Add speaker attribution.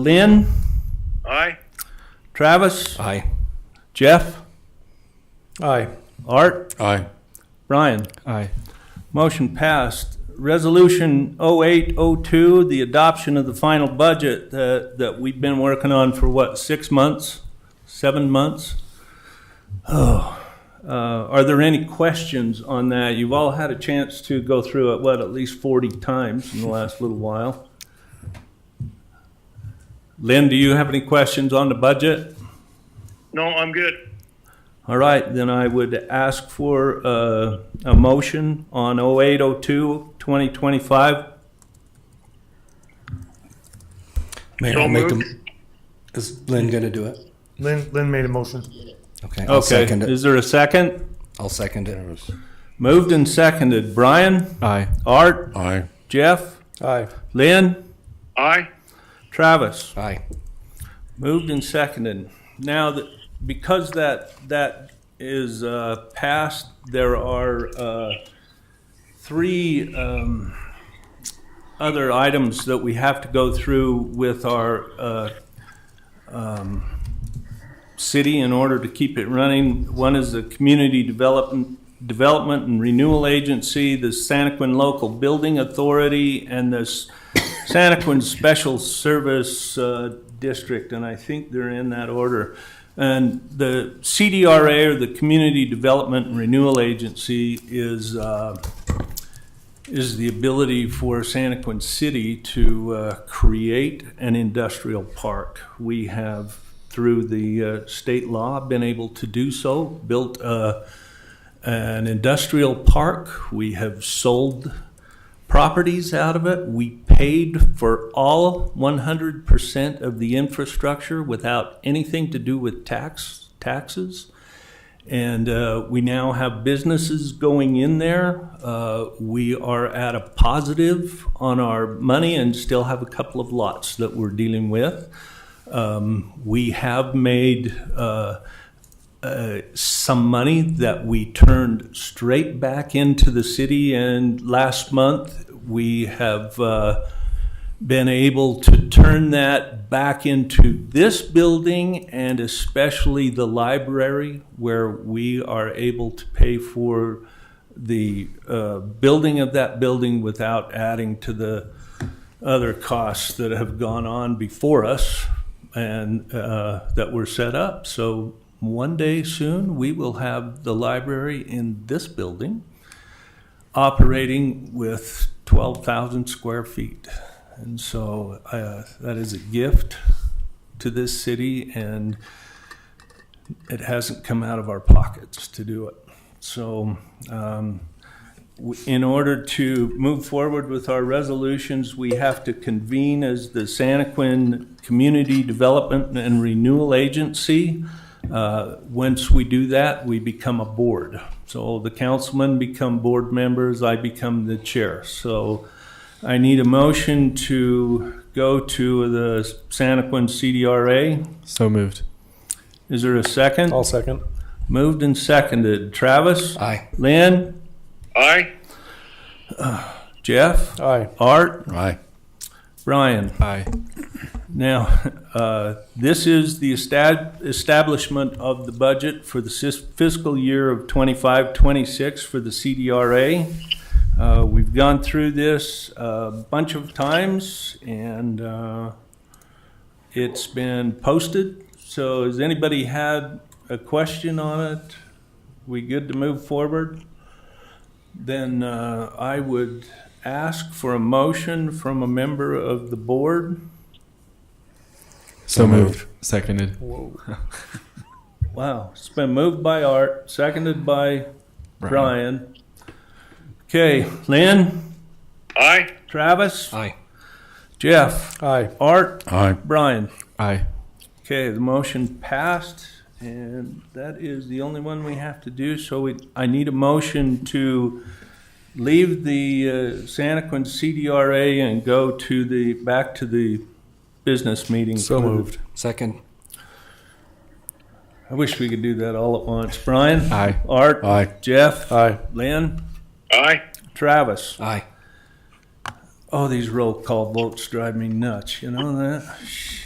Speaker 1: Lynn,
Speaker 2: Aye.
Speaker 1: Travis,
Speaker 3: Aye.
Speaker 1: Jeff,
Speaker 3: Aye.
Speaker 1: Art,
Speaker 3: Aye.
Speaker 1: Brian.
Speaker 3: Aye.
Speaker 1: Motion passed. Resolution 0802, the adoption of the final budget that, that we've been working on for what, six months? Seven months? Oh, uh, are there any questions on that? You've all had a chance to go through it, what, at least 40 times in the last little while? Lynn, do you have any questions on the budget?
Speaker 2: No, I'm good.
Speaker 1: All right, then I would ask for uh, a motion on 0802, 2025.
Speaker 3: Mayor,
Speaker 2: So
Speaker 3: I'll make the,
Speaker 2: moved.
Speaker 3: is Lynn gonna do it?
Speaker 4: Lynn, Lynn made a motion.
Speaker 3: Okay, I'll
Speaker 1: Okay,
Speaker 3: second it.
Speaker 1: is there a second?
Speaker 3: I'll second it.
Speaker 1: Moved and seconded. Brian,
Speaker 3: Aye.
Speaker 1: Art,
Speaker 3: Aye.
Speaker 1: Jeff,
Speaker 3: Aye.
Speaker 1: Lynn,
Speaker 2: Aye.
Speaker 1: Travis.
Speaker 3: Aye.
Speaker 1: Moved and seconded. Now, that- because that, that is uh, passed, there are uh, three um, other items that we have to go through with our uh, um, city in order to keep it running. One is the Community Development, Development and Renewal Agency, the Santaquin Local Building Authority, and the S- Santaquin Special Service uh, District, and I think they're in that order. And the CDRA, or the Community Development and Renewal Agency, is, uh, is the ability for Santaquin City to uh, create an industrial park. We have, through the uh, state law, been able to do so, built uh, an industrial park. We have sold properties out of it. We paid for all 100% of the infrastructure without anything to do with tax, taxes. And uh, we now have businesses going in there. Uh, We are at a positive on our money and still have a couple of lots that we're dealing with. Um, We have made uh, uh, some money that we turned straight back into the city. And last month, we have uh, been able to turn that back into this building and especially the library where we are able to pay for the uh, building of that building without adding to the other costs that have gone on before us and uh, that were set up. So one day soon, we will have the library in this building operating with 12,000 square feet. And so uh, that is a gift to this city, and it hasn't come out of our pockets to do it. So um, w- in order to move forward with our resolutions, we have to convene as the Santaquin Community Development and Renewal Agency. Uh, Once we do that, we become a board. So the councilmen become board members, I become the chair. So I need a motion to go to the Santaquin CDRA.
Speaker 5: So moved.
Speaker 1: Is there a second?
Speaker 3: Oh.
Speaker 4: I'll second.
Speaker 1: Moved and seconded. Travis?
Speaker 3: Aye.
Speaker 1: Lynn?
Speaker 2: Aye.
Speaker 1: Jeff?
Speaker 4: Aye.
Speaker 1: Art?
Speaker 3: Aye.
Speaker 1: Brian?
Speaker 5: Aye.
Speaker 1: Now, uh, this is the estab- establishment of the budget for the sis- fiscal year of 25-26 for the CDRA. Uh, We've gone through this a bunch of times, and uh, it's been posted. So has anybody had a question on it? We good to move forward? Then uh, I would ask for a motion from a member of the board.
Speaker 5: So moved. Seconded.
Speaker 1: Wow, it's been moved by Art, seconded by
Speaker 5: Brian.
Speaker 1: Brian. Okay, Lynn,
Speaker 2: Aye.
Speaker 1: Travis,
Speaker 3: Aye.
Speaker 1: Jeff,
Speaker 4: Aye.
Speaker 1: Art,
Speaker 3: Aye.
Speaker 1: Brian.
Speaker 5: Aye.
Speaker 1: Okay, the motion passed, and that is the only one we have to do, so we, I need a motion to leave the uh, Santaquin CDRA and go to the, back to the business meeting.
Speaker 4: So
Speaker 1: for the-
Speaker 4: moved.
Speaker 3: Second.
Speaker 1: I wish we could do that all at once. Brian,
Speaker 5: Aye.
Speaker 1: Art,
Speaker 3: Aye.
Speaker 1: Jeff,
Speaker 4: Aye.
Speaker 1: Lynn,
Speaker 2: Aye.
Speaker 1: Travis.
Speaker 3: Aye.
Speaker 1: Oh, these roll call votes drive me nuts, you know that?